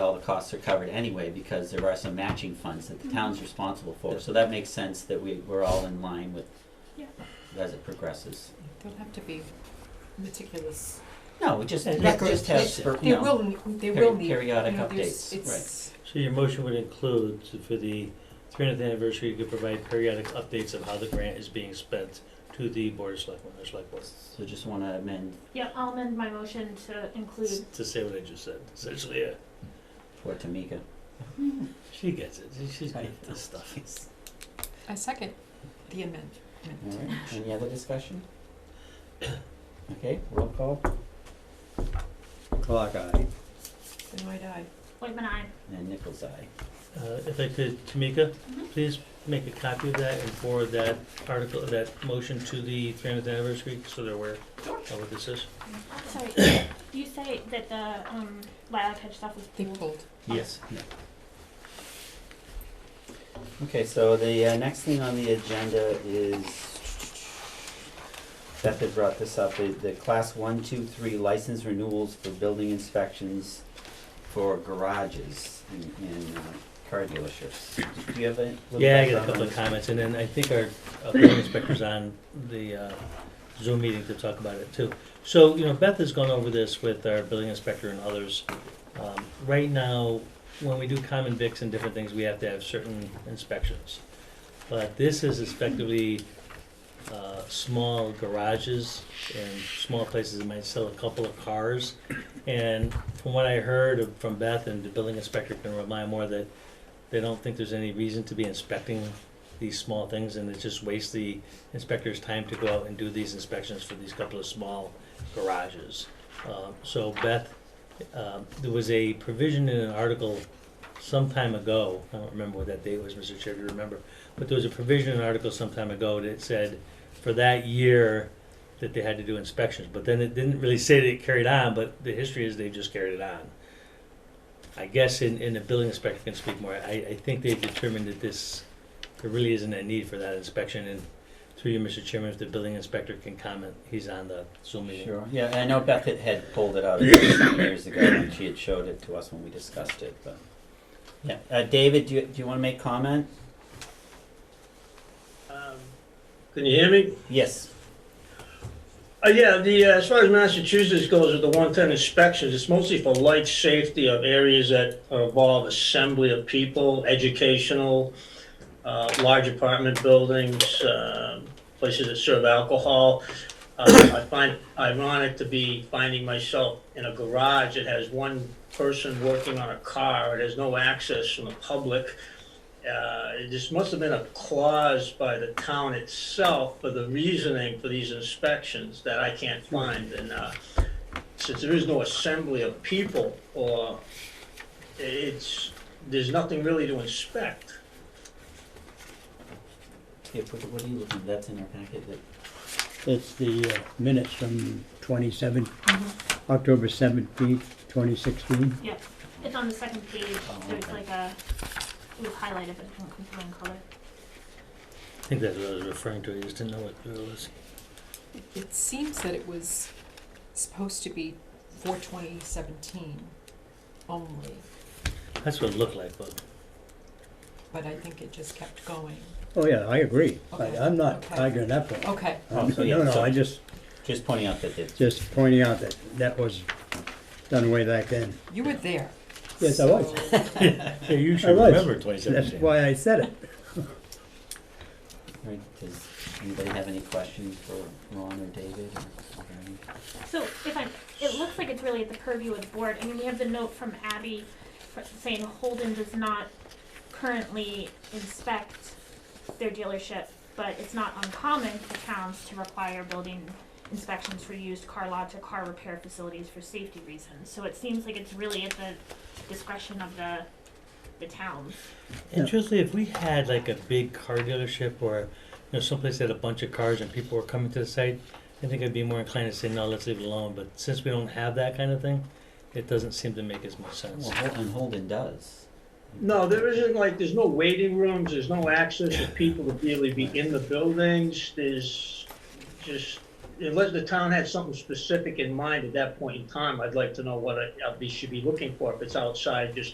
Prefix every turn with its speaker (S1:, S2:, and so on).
S1: all the costs are covered anyway, because there are some matching funds that the town's responsible for, so that makes sense that we, we're all in line with
S2: Yeah.
S1: as it progresses.
S3: Don't have to be meticulous.
S1: No, we just,
S4: And
S1: let-
S4: records
S1: just have,
S4: just for-
S1: you
S3: They
S1: know,
S3: will, ne- they
S1: peri-
S3: will need, you
S1: periodic
S3: know, there's,
S1: updates, right.
S3: it's,
S4: So your motion would include to- for the 300th anniversary, you could provide periodic updates of how the grant is being spent to the Board of Selectmen or Select Board.
S1: So just wanna amend
S2: Yeah, I'll amend my motion to include,
S4: To say what I just said, essentially, yeah.
S1: for Tamika.
S4: She gets it. She's good at this stuff.
S3: I second the amendment.
S1: Alright, any other discussion? Okay, roll call,
S5: Clock eye.
S3: Then why die?
S2: Whitman I.
S1: and Nichols eye.
S4: Uh, If I could, Tamika,
S2: Mhm.
S4: please make a copy of that and forward that article, that motion to the 300th anniversary so they're aware of what this is.
S2: Sorry, you say that the, um, lilac hedge stuff was
S3: They
S2: pulled.
S3: pulled.
S4: Yes.
S1: Okay, so the uh, next thing on the agenda is, Beth had brought this up, the, the class one, two, three license renewals for building inspections for garages and, and uh, car dealerships. Do you have a? little
S4: Yeah, I got a
S1: background on
S4: couple of
S1: this?
S4: comments, and then I think our uh, building inspector's on the uh, Zoom meeting to talk about it too. So, you know, Beth has gone over this with our building inspector and others. Um, Right now, when we do common vics and different things, we have to have certain inspections. But this is effectively uh, small garages and small places that might sell a couple of cars. And from what I heard of- from Beth, and the building inspector can remind more that they don't think there's any reason to be inspecting these small things and it just wastes the inspector's time to go out and do these inspections for these couple of small garages. Uh, so Beth, um, there was a provision in an article some time ago, I don't remember what that date was, Mr. Chair, if you remember, but there was a provision in an article some time ago that said for that year that they had to do inspections, but then it didn't really say that it carried on, but the history is they just carried it on. I guess in, in the building inspector can speak more, I, I think they've determined that this, there really isn't a need for that inspection, and through you, Mr. Chairman, if the building inspector can comment, he's on the Zoom meeting.
S1: Sure, yeah, I know Beth had- had pulled it out some years ago, and she had showed it to us when we discussed it, but. Yeah, uh, David, do you, do you wanna make comment?
S6: Um, Can you hear me?
S1: Yes,
S6: Uh, yeah, the, uh, as far as Massachusetts goes with the one-time inspections, it's mostly for light safety of areas that involve assembly of people, educational, uh, large apartment buildings, um, places that serve alcohol. Uh, I find ironic to be finding myself in a garage that has one person working on a car, it has no access from the public. uh, this must have been a clause by the town itself for the reasoning for these inspections that I can't find. And uh, since there is no assembly of people, or it's, there's nothing really to inspect.
S1: yeah, what, what are you looking, that's in our packet, that,
S5: It's the uh, minutes from 27,
S1: Mm-hmm.
S5: October 17th, 2016.
S2: Yeah, it's on the second page,
S1: Oh,
S2: there's
S1: okay.
S2: like a, it was highlighted, but it didn't come through in color.
S4: I think that's what I was referring to, I just didn't know what it was.
S3: It- It seems that it was supposed to be for 2017 only,
S4: That's what it looked like, but
S3: but I think it just kept going.
S5: Oh, yeah, I agree.
S3: Okay,
S5: I- I'm not
S3: okay.
S5: arguing that point.
S3: Okay,
S1: Oh, so yeah,
S5: No, no,
S1: so-
S5: I just,
S1: just pointing out that it's,
S5: just pointing out that that was done way back then.
S3: you were there.
S5: Yes, I was.
S3: so-
S4: Yeah, you
S5: I
S4: should
S5: was.
S4: remember twenty
S5: That's
S4: seventeen.
S5: why I said it.
S1: right, does anybody have any questions for Ron or David or Gary?
S2: So if I, it looks like it's really at the purview of the board. I mean, we have the note from Abby fr- saying Holden does not currently inspect their dealership, but it's not uncommon for towns to require building inspections for used car lots or car repair facilities for safety reasons. So it seems like it's really at the discretion of the, the towns.
S4: And truthfully, if we had like a big car dealership or, you know, someplace that had a bunch of cars and people were coming to the site, I think I'd be more inclined to say, no, let's leave it alone, but since we don't have that kind of thing, it doesn't seem to make as much sense.
S1: Well, Hol- and Holden does.
S6: No, there isn't like, there's no waiting rooms, there's no access for people to really be in the buildings, there's just, unless the town had something specific in mind at that point in time, I'd like to know what I, I should be looking for, if it's outside just